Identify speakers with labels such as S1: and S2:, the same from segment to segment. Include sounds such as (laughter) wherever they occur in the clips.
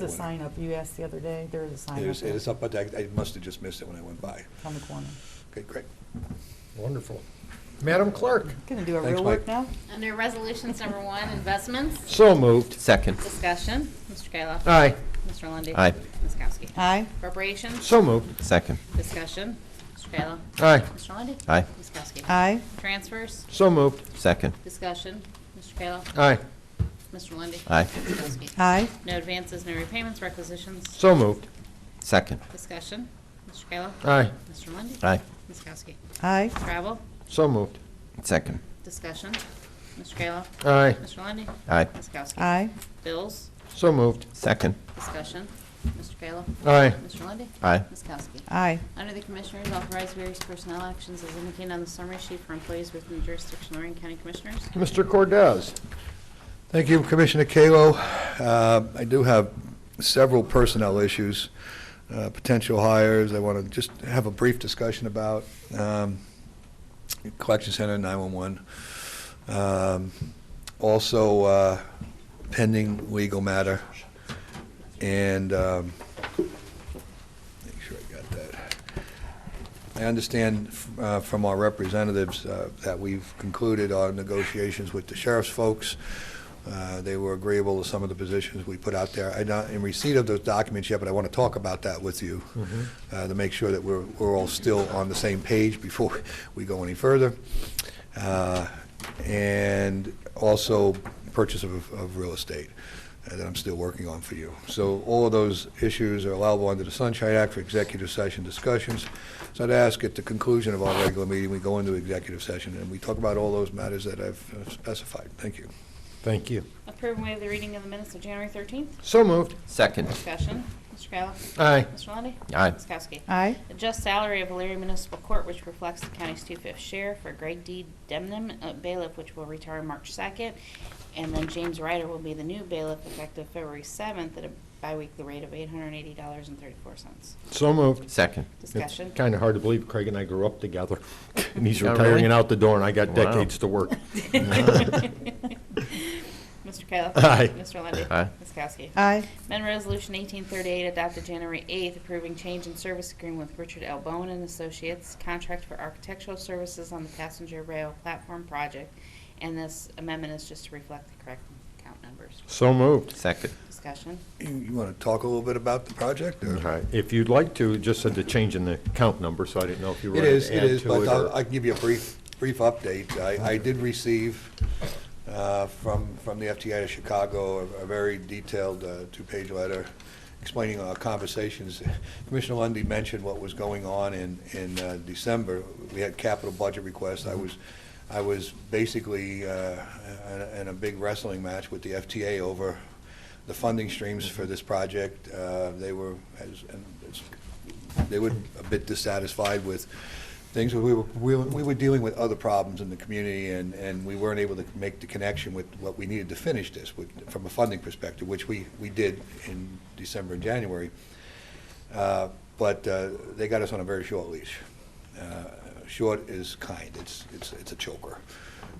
S1: The sign up, you asked the other day, there is a sign
S2: It
S1: up
S2: is, it
S1: there
S2: is up, but I, I must have just missed it when I went by.
S1: on the corner.
S2: Okay, great.
S3: Wonderful. Madam Clerk?
S1: Gonna do a
S2: Thanks,
S1: real work
S2: Mike.
S1: now?
S4: Under Resolutions Number One, Investments,
S3: So moved.
S5: Second.
S4: Discussion, Mr. Kayla.
S3: Aye.
S4: Mr. Lundey.
S5: Aye.
S4: Ms. Kowski.
S1: Aye,
S4: Appropriations,
S3: So moved.
S5: Second.
S4: Discussion, Mr. Kayla.
S3: Aye.
S4: Mr. Lundey.
S5: Aye.
S4: Ms. Kowski.
S1: aye,
S4: Transfers,
S3: So moved.
S5: Second.
S4: Discussion, Mr. Kayla.
S3: Aye.
S4: Mr. Lundey.
S5: Aye.
S4: Ms. Kowski.
S1: aye,
S4: No advances, no repayments, requisitions,
S3: So moved.
S5: Second.
S4: Discussion, Mr. Kayla.
S3: Aye.
S4: Mr. Lundey.
S5: Aye.
S4: Ms. Kowski.
S1: aye,
S4: Travel,
S3: So moved.
S5: Second.
S4: Discussion, Mr. Kayla.
S3: Aye.
S4: Mr. Lundey.
S5: Aye.
S4: Ms. Kowski.
S1: aye,
S4: Bills,
S3: So moved.
S5: Second.
S4: Discussion, Mr. Kayla.
S3: Aye.
S4: Mr. Lundey.
S5: Aye.
S4: Ms. Kowski.
S1: aye,
S4: Under the Commissioners, authorize various personnel actions as indicated on the summary sheet for employees within the jurisdiction of Lorraine County Commissioners.
S3: Mr. Cordez?
S2: Thank you, Commissioner Kalo. Uh, I do have several personnel issues, uh, potential hires I want to just have a brief discussion about. Um, Collection Center, 911. Um, Also uh, pending legal matter. And, um, make sure I got that. I understand uh, from our representatives uh, that we've concluded our negotiations with the sheriff's folks. Uh, They were agreeable to some of the positions we put out there. I'm not in receipt of those documents yet, but I want to talk about that with you uh, to make sure that we're, we're all still on the same page before we go any further. Uh, And also purchase of, of real estate uh, that I'm still working on for you. So all of those issues are allowable under the Sunshine Act for executive session discussions. So I'd ask at the conclusion of our regular meeting, we go into executive session and we talk about all those matters that I've uh, specified. Thank you.
S3: Thank you.
S4: Approve and waive the reading of the minutes of January 13th.
S3: So moved.
S5: Second.
S4: Discussion, Mr. Kayla.
S3: Aye.
S4: Mr. Lundey.
S5: Aye.
S4: Ms. Kowski.
S1: aye,
S4: Adjust salary of Alariah Municipal Court, which reflects the county's two-fifth share for Greg D. Demnem uh, bailiff, which will retire March 2nd. And then James Ryder will be the new bailiff effective February 7th at a biweekly rate of $880.34.
S3: So moved.
S5: Second.
S4: Discussion.
S3: Kind of hard to believe Craig and I grew up together. And he's
S5: Yeah,
S3: retiring
S5: really?
S3: and out the door, and I got
S5: Wow.
S3: decades to
S4: (laughs)
S3: work.
S4: Mr. Kayla.
S3: Aye.
S4: Mr. Lundey.
S5: Aye.
S4: Ms. Kowski.
S1: aye,
S4: Amendment Resolution 1838 adopted January 8th approving change in service agreement with Richard L. Bowen and Associates, contract for architectural services on the passenger rail platform project. And this amendment is just to reflect the correct count numbers.
S3: So moved.
S5: Second.
S4: Discussion.
S2: You, you want to talk a little bit about the project? or-
S3: If you'd like to, just said the change in the count number, so I didn't know if you were
S2: It
S3: going
S2: is,
S3: to
S2: it
S3: add
S2: is,
S3: to
S2: but
S3: it.
S2: I'll,
S3: or-
S2: I can give you a brief, brief update. I, I did receive uh, from, from the FTI of Chicago, a a very detailed uh, two-page letter explaining our conversations. Commissioner Lundy mentioned what was going on in, in uh, December. We had capital budget requests. I was, I was basically uh, in a- in a big wrestling match with the FTA over the funding streams for this project. Uh, They were, as- and it's- they were a bit dissatisfied with things. We were, we were- we were dealing with other problems in the community, and, and we weren't able to make the connection with what we needed to finish this with, from a funding perspective, which we, we did in December and January. Uh, But uh, they got us on a very short leash. Uh, Short is kind, it's, it's, it's a choker.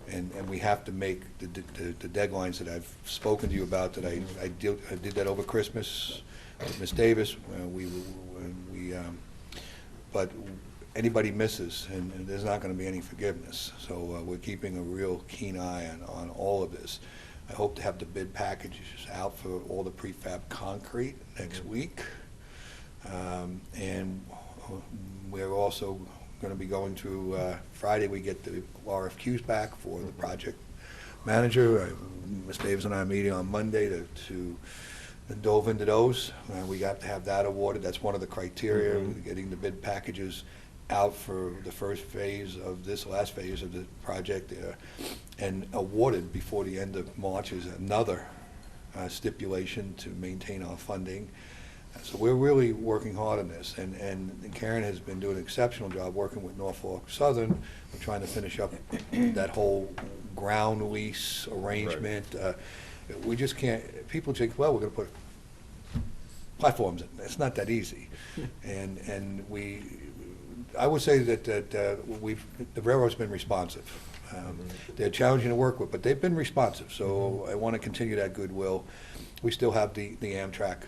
S2: And, and we have to make the, the the deadlines that I've spoken to you about, that I, I did, I did that over Christmas with Ms. Davis, uh, we, we, um, but anybody misses, and and there's not going to be any forgiveness. So uh, we're keeping a real keen eye on, on all of this. I hope to have the bid packages out for all the prefab concrete next week. Um, And uh, we're also going to be going to, uh, Friday, we get the RFQs back for the project manager. I- Ms. Davis and I are meeting on Monday to- to dove into those. Uh, We got to have that awarded. That's one of the criteria, getting the bid packages out for the first phase of this last phase of the project uh, and awarded before the end of March is another uh, stipulation to maintain our funding. So we're really working hard on this, and, and Karen has been doing an exceptional job working with Norfolk Southern. We're trying to finish up that whole ground lease arrangement. Uh, We just can't, people think, well, we're gonna put platforms in. It's not that easy. And, and we, I would say that, that uh, we've, the railroad's been responsive. Um, They're challenging to work with, but they've been responsive, so I want to continue that goodwill. We still have the, the Amtrak